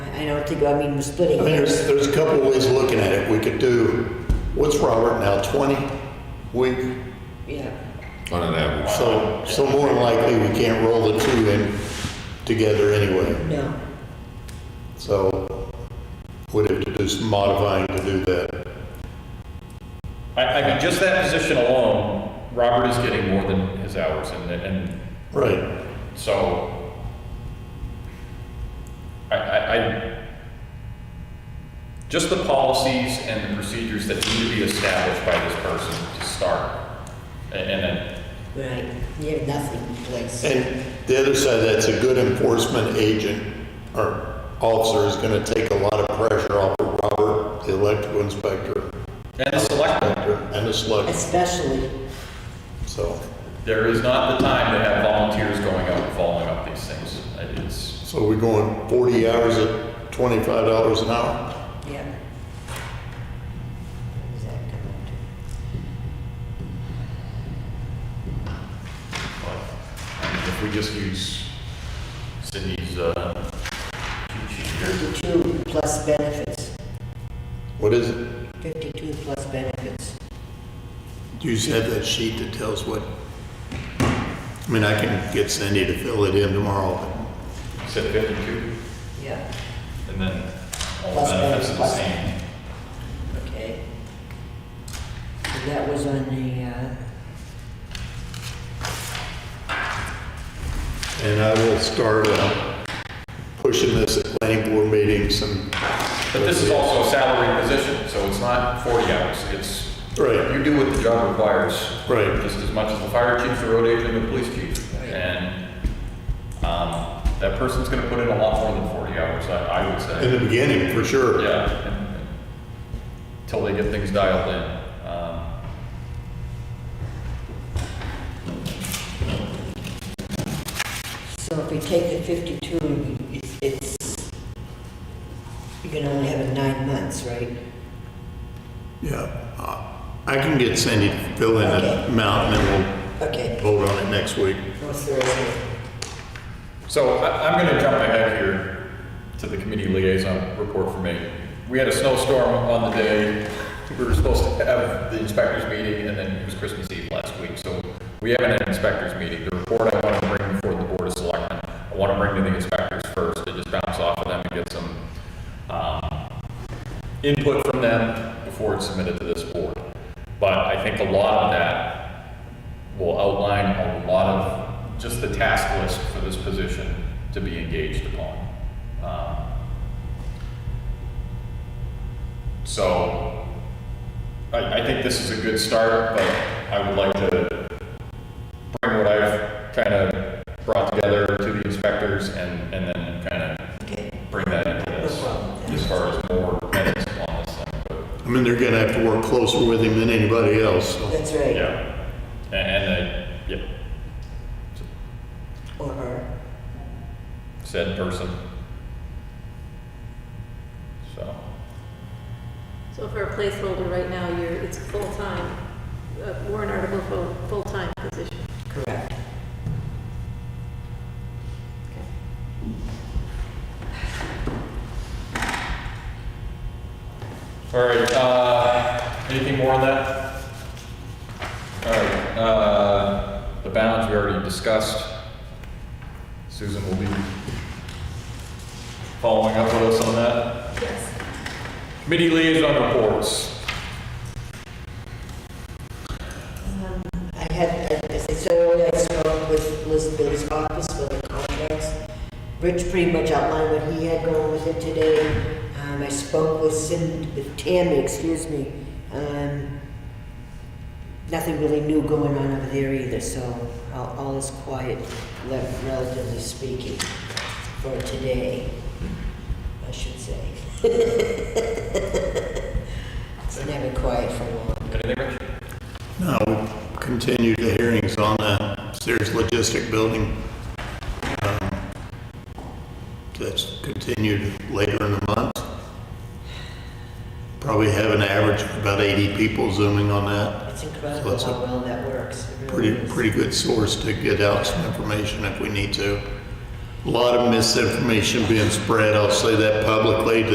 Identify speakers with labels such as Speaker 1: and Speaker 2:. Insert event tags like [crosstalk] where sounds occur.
Speaker 1: I don't think, I mean, we're splitting
Speaker 2: I mean, there's,
Speaker 1: hairs.
Speaker 2: there's a couple of ways of looking at it. We could do, what's Robert now, 20 week?
Speaker 1: Yeah.
Speaker 3: on an average.
Speaker 2: So, so more than likely, we can't roll the two in together anyway.
Speaker 1: No.
Speaker 2: So we'd have to do some modifying to do that.
Speaker 4: I, I mean, just that position alone, Robert is getting more than his hours and, and
Speaker 2: Right.
Speaker 4: so. I, I, I, just the policies and the procedures that need to be established by this person to start. And, and then,
Speaker 1: Right. You have nothing in place.
Speaker 2: And the other side, of that's a good enforcement agent or officer is going to take a lot of pressure off of Robert, the electrical inspector,
Speaker 4: and the select board.
Speaker 2: and the select.
Speaker 1: Especially,
Speaker 2: So,
Speaker 4: There is not the time to have volunteers going out and following up these things. It's,
Speaker 2: so we're going 40 hours at $25 an hour?
Speaker 1: yeah. What does that come up to?
Speaker 4: I mean, if we just use Cindy's, uh, cheat sheet here,
Speaker 1: 52 plus benefits,
Speaker 2: What is it?
Speaker 1: 52 plus benefits.
Speaker 2: Do you just have that sheet that tells what? I mean, I can get Cindy to fill it in tomorrow.
Speaker 4: set fifty-two,
Speaker 1: Yeah,
Speaker 4: and then all
Speaker 1: Plus
Speaker 4: benefits are the
Speaker 1: plus-
Speaker 4: same.
Speaker 1: okay. So that was on the, uh,
Speaker 2: And I will start uh, pushing this at planning board meetings and.
Speaker 4: But this is also a salary position, so it's not forty hours, it's,
Speaker 2: Right,
Speaker 4: you do what the job requires.
Speaker 2: right.
Speaker 4: Just as much as the fire chief, the road agent, and the police chief. And, um, that person's gonna put in a lot more than forty hours, I, I would say.
Speaker 2: In the beginning, for sure.
Speaker 4: Yeah, and- and until they get things dialed in. Um,
Speaker 1: so if we take the 52, and we- it's- it's, you can only have it nine months, right?
Speaker 2: Yeah. Uh, I can get Cindy to fill in that amount and then
Speaker 1: Okay,
Speaker 2: we'll vote on it next week.
Speaker 1: what's the rest of it?
Speaker 4: So I- I'm going to jump ahead here to the committee liaison report for me. We had a snowstorm on the day, we were supposed to have the inspectors meeting, and then it was Christmas Eve last week, so we haven't had an inspectors meeting. The report I want to bring before the board of selectmen, I want to bring to the inspectors first, to just bounce off of them and get some um, input from them before it's submitted to this board. But I think a lot of that will outline a lot of just the task list for this position to be engaged upon. Um, So I, I think this is a good start, but I would like to bring what I've kind of brought together to the inspectors and, and then kind
Speaker 1: Okay.
Speaker 4: of bring that into this
Speaker 1: No problem.
Speaker 4: as far as more minutes on this thing. But
Speaker 2: I mean, they're gonna have to work closer with him than anybody else, so.
Speaker 1: That's right,
Speaker 4: yeah, and, and I, yeah,
Speaker 1: or her.
Speaker 4: said person. So,
Speaker 5: So for a placeholder right now, you're, it's full-time, uh, warrant article for full-time position.
Speaker 1: Correct.
Speaker 4: all right, uh, anything more on that? All right, uh, the bounds we already discussed. Susan will be following up with us on that.
Speaker 5: Yes.
Speaker 4: Committee liaison reports.
Speaker 1: I had, as I said earlier, I spoke with Elizabeth's office for the contracts. Rich pretty much outlined what he had going with it today. Um, I spoke with Cindy, with Tammy, excuse me. Um, nothing really new going on over there either, so all, all is quiet, le- relatively speaking, for today, I should say. [laughs] It's never quiet for long.
Speaker 4: Anything, Rich?
Speaker 2: No, we continue the hearings on the Sears Logistic Building. Um, That's continued later in the month. Probably have an average of about 80 people zooming on that.
Speaker 1: It's
Speaker 2: So
Speaker 1: incredible
Speaker 2: that's a
Speaker 1: how well that works. It really
Speaker 2: Pretty,
Speaker 1: is.
Speaker 2: pretty good source to get out some information if we need to. A lot of misinformation being spread, I'll say that publicly,